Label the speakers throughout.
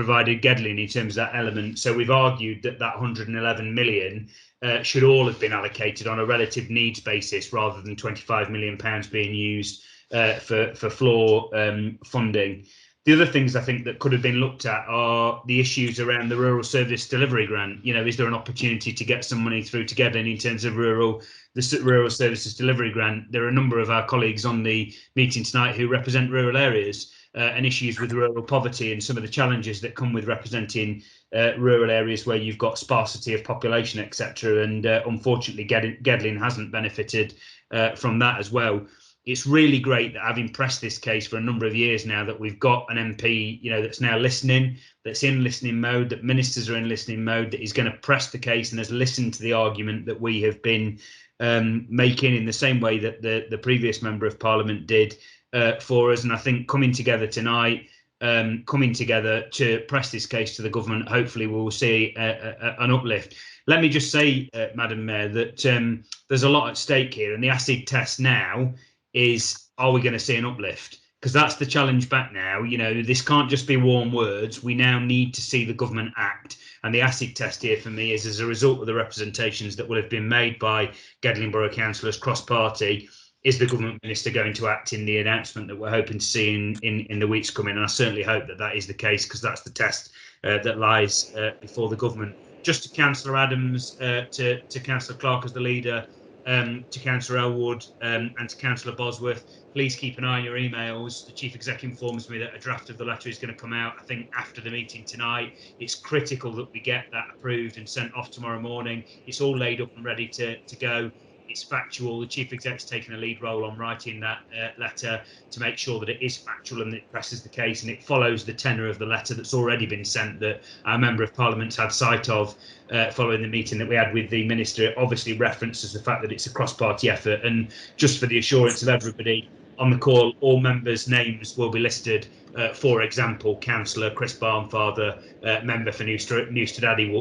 Speaker 1: provided Gedlin in terms of that element. So we've argued that that 111 million uh, should all have been allocated on a relative needs basis rather than 25 million pounds being used uh, for for floor um, funding. The other things I think that could have been looked at are the issues around the rural service delivery grant. You know, is there an opportunity to get some money through to Gedlin in terms of rural the rural services delivery grant? There are a number of our colleagues on the meeting tonight who represent rural areas. Uh, and issues with rural poverty and some of the challenges that come with representing uh, rural areas where you've got sparsity of population, etc. And uh, unfortunately, Gedlin hasn't benefited uh, from that as well. It's really great that I've impressed this case for a number of years now that we've got an MP, you know, that's now listening, that's in listening mode, that ministers are in listening mode, that is going to press the case and has listened to the argument that we have been um, making in the same way that the the previous member of parliament did uh, for us. And I think coming together tonight, um, coming together to press this case to the government, hopefully we'll see a, a, an uplift. Let me just say, uh, Madam Mayor, that um, there's a lot at stake here, and the acid test now is: are we going to see an uplift? Because that's the challenge back now. You know, this can't just be warm words. We now need to see the government act. And the acid test here for me is as a result of the representations that will have been made by Gedling Borough councillors cross party is the government minister going to act in the announcement that we're hoping to see in, in, in the weeks coming? And I certainly hope that that is the case because that's the test uh, that lies uh, before the government. Just to Councillor Adams, uh, to, to Councillor Clark as the leader, um, to Councillor Elwood um, and to Councillor Bosworth, please keep an eye on your emails. The Chief Executive informs me that a draft of the letter is going to come out, I think, after the meeting tonight. It's critical that we get that approved and sent off tomorrow morning. It's all laid up and ready to, to go it's factual. The chief exec's taken a lead role on writing that uh, letter to make sure that it is factual and it presses the case and it follows the tenor of the letter that's already been sent that our member of parliament's had sight of uh, following the meeting that we had with the minister. It obviously references the fact that it's a cross-party effort and just for the assurance of everybody on the call, all members' names will be listed. Uh, for example, Councillor Chris Barnfather, uh, member for Newstead, Newstead Abbey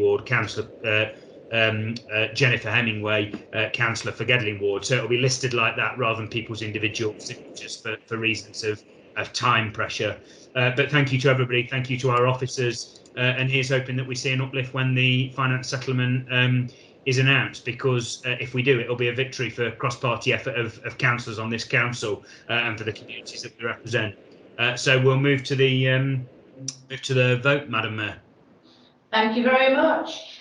Speaker 1: Ward, Councillor um, uh, Jennifer Hemingway, uh, councillor for Gedling Ward. So it'll be listed like that rather than people's individual signatures for, for reasons of, of time pressure. Uh, but thank you to everybody. Thank you to our officers. Uh, and here's hoping that we see an uplift when the finance settlement um, is announced, because uh, if we do, it'll be a victory for cross-party effort of, of councillors on this council uh, and for the communities that we represent. Uh, so we'll move to the um, move to the vote, Madam Mayor.
Speaker 2: Thank you very much.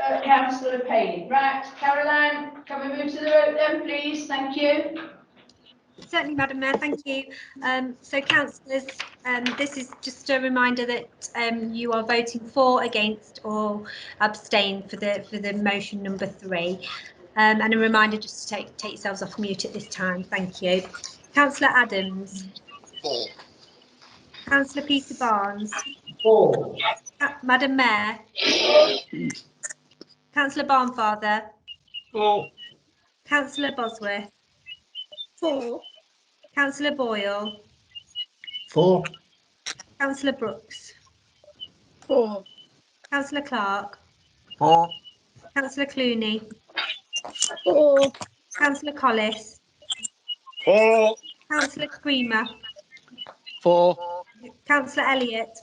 Speaker 2: Uh, Councillor Payne. Right, Caroline, can we move to the vote then, please? Thank you.
Speaker 3: Certainly, Madam Mayor, thank you. Um, so, councillors, um, this is just a reminder that um, you are voting for, against, or abstain for the for the motion number three, Um, and a reminder just to take take yourselves off mute at this time. Thank you, Councillor Adams.
Speaker 4: Four.
Speaker 3: Councillor Peter Barnes.
Speaker 2: Four.
Speaker 3: Uh, Madam Mayor. Councillor Barnfather.
Speaker 5: Four.
Speaker 3: Councillor Bosworth.
Speaker 6: Four.
Speaker 3: Councillor Boyle.
Speaker 5: Four.
Speaker 3: Councillor Brooks.
Speaker 6: Four.
Speaker 3: Councillor Clark.
Speaker 5: Four.
Speaker 3: Councillor Clooney.
Speaker 6: Four.
Speaker 3: Councillor Collis.
Speaker 5: Four.
Speaker 3: Councillor Creamer.
Speaker 5: Four.
Speaker 3: Councillor Elliott.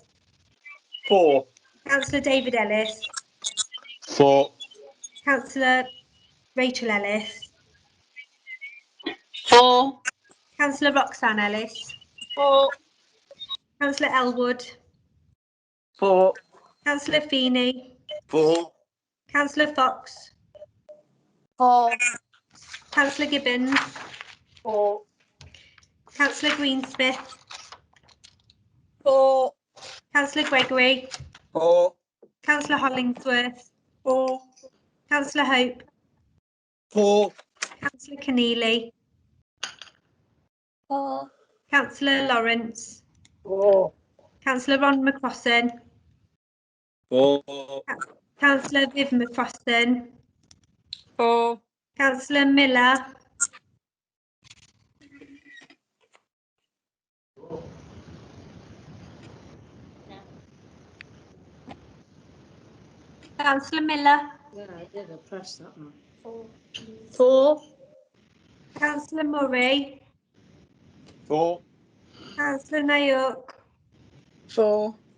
Speaker 5: Four.
Speaker 3: Councillor David Ellis.
Speaker 5: Four.
Speaker 3: Councillor Rachel Ellis.
Speaker 6: Four.
Speaker 3: Councillor Roxanne Ellis.
Speaker 6: Four.
Speaker 3: Councillor Elwood.
Speaker 5: Four.
Speaker 3: Councillor Feeney.
Speaker 5: Four.
Speaker 3: Councillor Fox.
Speaker 6: Four.
Speaker 3: Councillor Gibbons.
Speaker 6: Four.
Speaker 3: Councillor Greensmith.
Speaker 6: Four.
Speaker 3: Councillor Gregory.
Speaker 5: Four.
Speaker 3: Councillor Hollingsworth.
Speaker 6: Four.
Speaker 3: Councillor Hope.
Speaker 5: Four.
Speaker 3: Councillor Keneally.
Speaker 6: Four.
Speaker 3: Councillor Lawrence.
Speaker 6: Four.
Speaker 3: Councillor Ron McCrossan.
Speaker 5: Four.
Speaker 3: Councillor Viv McCrossan.
Speaker 6: Four.
Speaker 3: Councillor Miller. Councillor Miller.
Speaker 7: Yeah, I did, I pressed that one.
Speaker 6: Four.
Speaker 3: Councillor Murray.
Speaker 5: Four.
Speaker 3: Councillor Nayuk.
Speaker 6: Four.